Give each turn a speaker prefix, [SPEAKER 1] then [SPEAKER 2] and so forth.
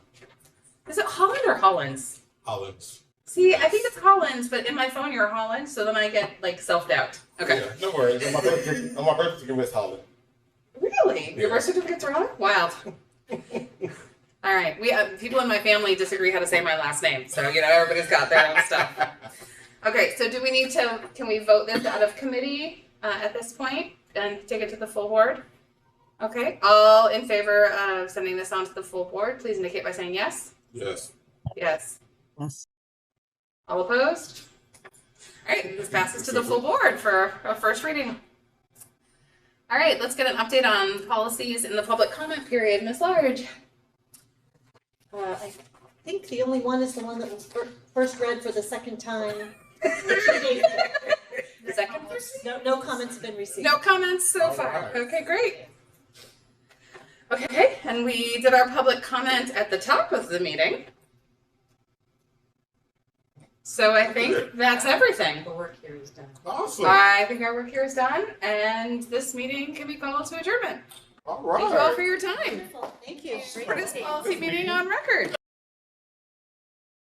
[SPEAKER 1] Is it Holland or Hollands?
[SPEAKER 2] Hollands.
[SPEAKER 1] See, I think it's Hollands, but in my phone you're Holland, so then I get like self doubt. Okay.
[SPEAKER 2] Yeah, no worries. On my birth certificate, on my birth certificate was Holland.
[SPEAKER 1] Really? Your
[SPEAKER 2] Yeah.
[SPEAKER 1] birth certificate's Holland? Wild. All right. We uh, people in my family disagree how to say my last name, so you know everybody's got their own stuff. Okay. So do we need to? Can we vote this out of committee uh, at this point and take it to the full board? Okay. All in favor of sending this on to the full board, please indicate by saying yes.
[SPEAKER 2] Yes.
[SPEAKER 1] Yes.
[SPEAKER 3] Yes.
[SPEAKER 1] All opposed? All right, this passes to the full board for a first reading. All right, let's get an update on policies in the public comment period. Ms. Large?
[SPEAKER 4] Uh, I think the only one is the one that was fir- first read for the second time.
[SPEAKER 1] The second person?
[SPEAKER 4] No, no comments have been received.
[SPEAKER 1] No comments so
[SPEAKER 2] All
[SPEAKER 1] far.
[SPEAKER 2] right.
[SPEAKER 1] Okay, great. Okay, and we did our public comment at the top of the meeting. So I think that's everything.
[SPEAKER 5] The work here is done.
[SPEAKER 2] Awesome.
[SPEAKER 1] I think our work here is done, and this meeting can be called to adjournment.
[SPEAKER 2] All
[SPEAKER 1] Thank you all
[SPEAKER 2] right.
[SPEAKER 1] for your time.
[SPEAKER 4] Wonderful, Thank you. Great
[SPEAKER 1] For this
[SPEAKER 4] meeting.
[SPEAKER 1] policy meeting on record.